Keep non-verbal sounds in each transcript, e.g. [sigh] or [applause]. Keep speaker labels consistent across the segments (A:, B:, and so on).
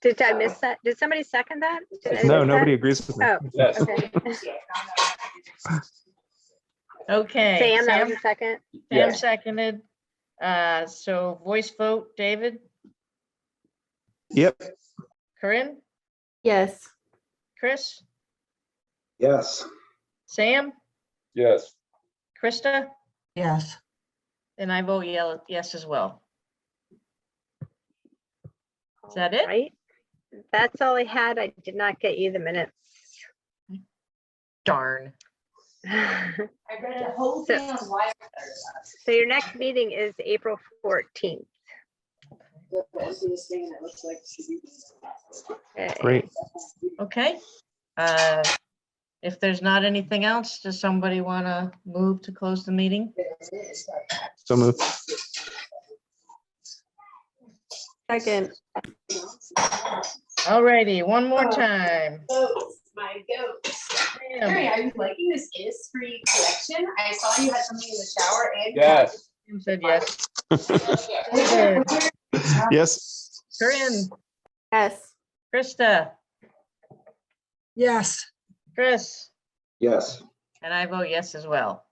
A: Did I miss that? Did somebody second that? Did I
B: No,
A: miss that?
B: nobody agrees with me.
A: Oh,
C: Yes.
A: okay.
D: Okay,
A: Sam, that
D: Sam,
A: was a second.
D: Sam
C: Yes.
D: seconded. Uh, so voice vote, David,
B: Yep,
D: Corinne,
E: Yes.
D: Chris,
F: Yes.
D: Sam,
C: Yes.
D: Krista,
G: yes.
D: and I vote yell- yes as well. Is that it?
A: Right? That's all I had. I did not get you the minutes. [laughs]
D: Darn.
H: I read a whole
A: So-
H: thing on why.
A: So your next meeting is April fourteenth.
H: That was this thing that looks like. she beats.
B: great.
D: Okay. Uh, If there's not anything else, does somebody want to move to close the meeting?
B: So moved.
E: Second.
D: All righty, one more time.
H: Goats, my goats. Mary,
D: Sam
H: are you liking this is free collection? I saw you had something in the shower and.
C: Yes.
D: Sam said
A: [laughs]
D: yes.
H: Where-
B: Yes,
D: Corinne,
E: Yes.
D: Krista,
G: Yes.
D: Chris,
F: Yes.
D: and I vote yes as well.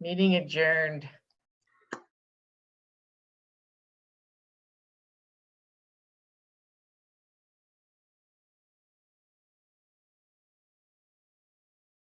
D: Meeting adjourned.